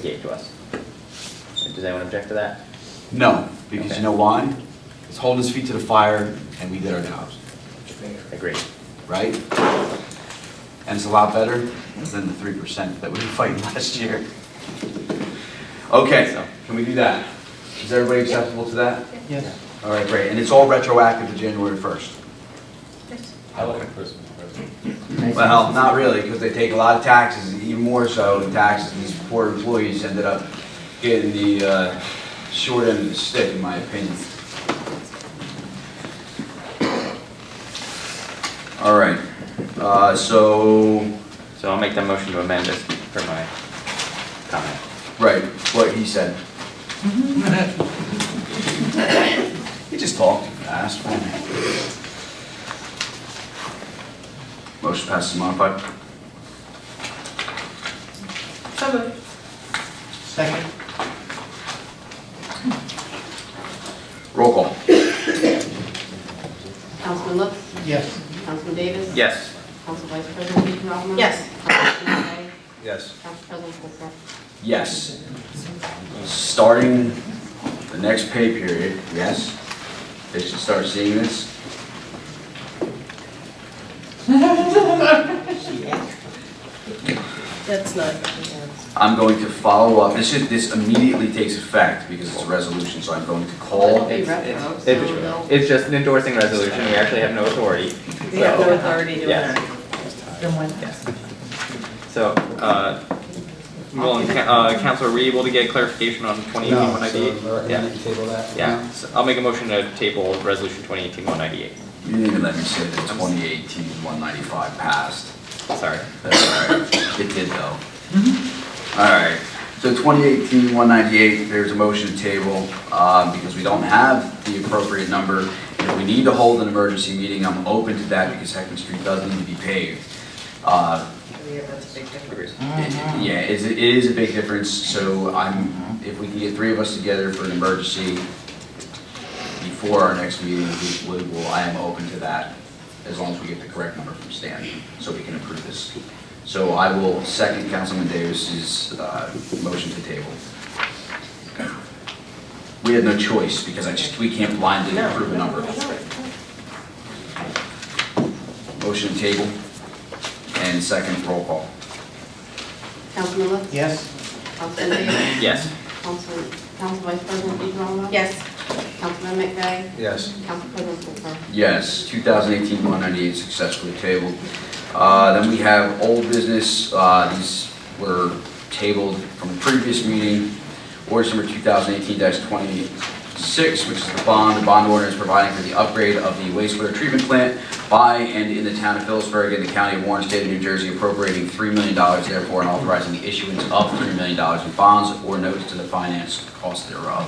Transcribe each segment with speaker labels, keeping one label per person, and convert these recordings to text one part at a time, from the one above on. Speaker 1: gave to us. Does anyone object to that?
Speaker 2: No, because
Speaker 1: Okay.
Speaker 2: you know why? It's holding his feet to the fire, and we did our jobs,
Speaker 1: Agreed.
Speaker 2: right? And it's a lot better than the three percent that we were fighting last year. Okay, can we do that? Is everybody acceptable to that?
Speaker 3: Yes.
Speaker 2: All right, great, and it's all retroactive to January first.
Speaker 4: I like a Christmas present.
Speaker 2: Well, not really, because they take a lot of taxes, even more so in taxes, these poor employees ended up getting the uh, short end of the stick, in my opinion. All right, uh, so,
Speaker 1: So I'll make the motion to amend this for my comment.
Speaker 2: right, what he said. He just talked too fast. Motion passes modified.
Speaker 3: So moved. Second.
Speaker 2: Roll call.
Speaker 5: Councilman Lutz?
Speaker 3: Yes.
Speaker 5: Councilman Davis?
Speaker 1: Yes.
Speaker 5: Council Vice President Peter Altman?
Speaker 3: Yes.
Speaker 5: Councilman Scott?
Speaker 2: Yes.
Speaker 5: Council President Polk?
Speaker 2: Yes. Starting the next pay period, yes, they should start seeing this.
Speaker 6: That's not,
Speaker 2: I'm going to follow up, this is, this immediately takes effect because it's a resolution, so I'm going to
Speaker 5: It'll
Speaker 2: call.
Speaker 5: be
Speaker 1: It's-
Speaker 5: retro,
Speaker 1: it's-
Speaker 5: so
Speaker 1: it's-
Speaker 5: they'll.
Speaker 1: It's just an endorsing resolution, we actually have no authority.
Speaker 6: we have
Speaker 1: so-
Speaker 6: no authority to.
Speaker 1: Yes. Yes. So, uh, well, and Ca- uh, Counselor, were you able to get clarification on twenty eighteen
Speaker 7: No,
Speaker 1: one ninety
Speaker 7: so
Speaker 1: eight?
Speaker 7: we're
Speaker 1: Yeah,
Speaker 7: gonna table that.
Speaker 1: yeah, So I'll make a motion to table resolution twenty eighteen one ninety eight,
Speaker 2: You didn't even let me say that 2018 195 passed.
Speaker 1: sorry.
Speaker 2: That's all right, it did though. Mm-hmm. All right, so 2018 198, there's a motion to table, um, because we don't have the appropriate number. If we need to hold an emergency meeting, I'm open to that because Heckman Street does need to be paved. Uh,
Speaker 6: Yeah, that's a big difference.
Speaker 1: Agrees.
Speaker 2: it- Mm-hmm. Yeah, it's- it is a big difference, so I'm, if we can get three of us together for an emergency before our next meeting, we we will, I am open to that, as long as we get the correct number from Stan, so we can approve this. So I will second Councilman Davis's uh, motion to table. We had no choice, because I just, we can't blindly approve a number. Motion to table, and second roll call.
Speaker 5: Councilman Lutz?
Speaker 3: Yes.
Speaker 5: Councilman Davis?
Speaker 1: Yes,
Speaker 5: Council, Council Vice President Peter Altman?
Speaker 6: Yes.
Speaker 5: Councilman McVeigh?
Speaker 7: Yes.
Speaker 5: Council President Polk?
Speaker 2: Yes, 2018-198 successfully tabled. Uh, Then we have old business, Uh, these were tabled from the previous meeting. Ordinance number 2018-26, which is the bond, the bond ordinance providing for the upgrade of the wastewater treatment plant by and in the town of Phillipsburg in the county of Warren, state of New Jersey appropriating $3 million therefore and authorizing the issuance of $3 million in bonds or notes to the finance cost thereof.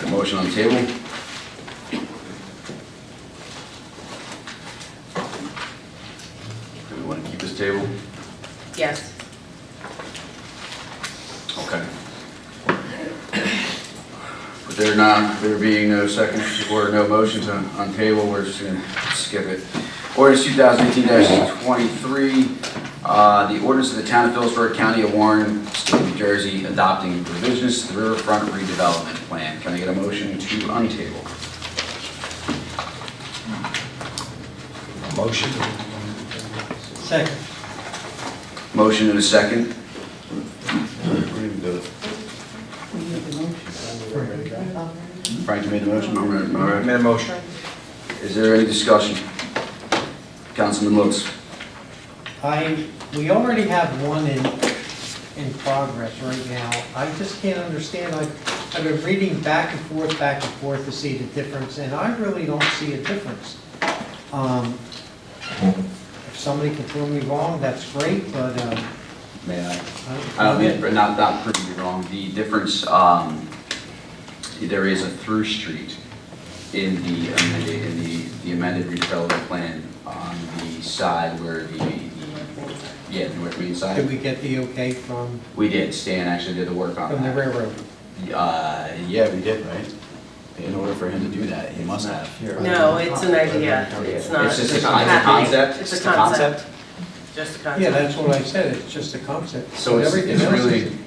Speaker 2: Got a motion on the table? Do we want to keep this table?
Speaker 6: Yes.
Speaker 2: Okay. But there not, there being no second or no motions on, on table, we're just gonna skip it. Ordinance two thousand eighteen twenty-three, uh, the ordinance of the town of Phillipsburg, county of Warren, state of New Jersey, adopting revisions to the riverfront redevelopment plan. Can I get a motion to untable?
Speaker 7: Motion.
Speaker 3: Second.
Speaker 2: Motion and a second? Frank, you made the motion, all right, all right.
Speaker 7: Made a motion.
Speaker 2: Is there any discussion? Councilman Lutz?
Speaker 3: I, we already have one in, in progress right now. I just can't understand, I've, I've been reading back and forth, back and forth to see the difference, and I really don't see a difference. Um, If somebody can prove me wrong, that's great, but, um,
Speaker 2: May I?
Speaker 3: I don't.
Speaker 2: I don't mean, not, not proving you wrong, the difference, um, there is a through street in the amended, in the the amended redevelopment plan on the side where the, the- yeah, the North Main
Speaker 3: Did
Speaker 2: side.
Speaker 3: we get the okay from,
Speaker 2: We did, Stan actually did the work on that.
Speaker 3: from the railroad?
Speaker 2: Uh, yeah, we did, right? In order for him to do that, he must have.
Speaker 6: No, it's an idea. It's not.
Speaker 2: It's just a con- it's a
Speaker 6: happening.
Speaker 2: concept?
Speaker 6: It's a
Speaker 2: It's a concept?
Speaker 6: concept. Just a concept.
Speaker 3: Yeah, that's what I said, it's just a concept.
Speaker 2: So it's,
Speaker 3: Everything
Speaker 2: it's
Speaker 3: else is-
Speaker 2: really,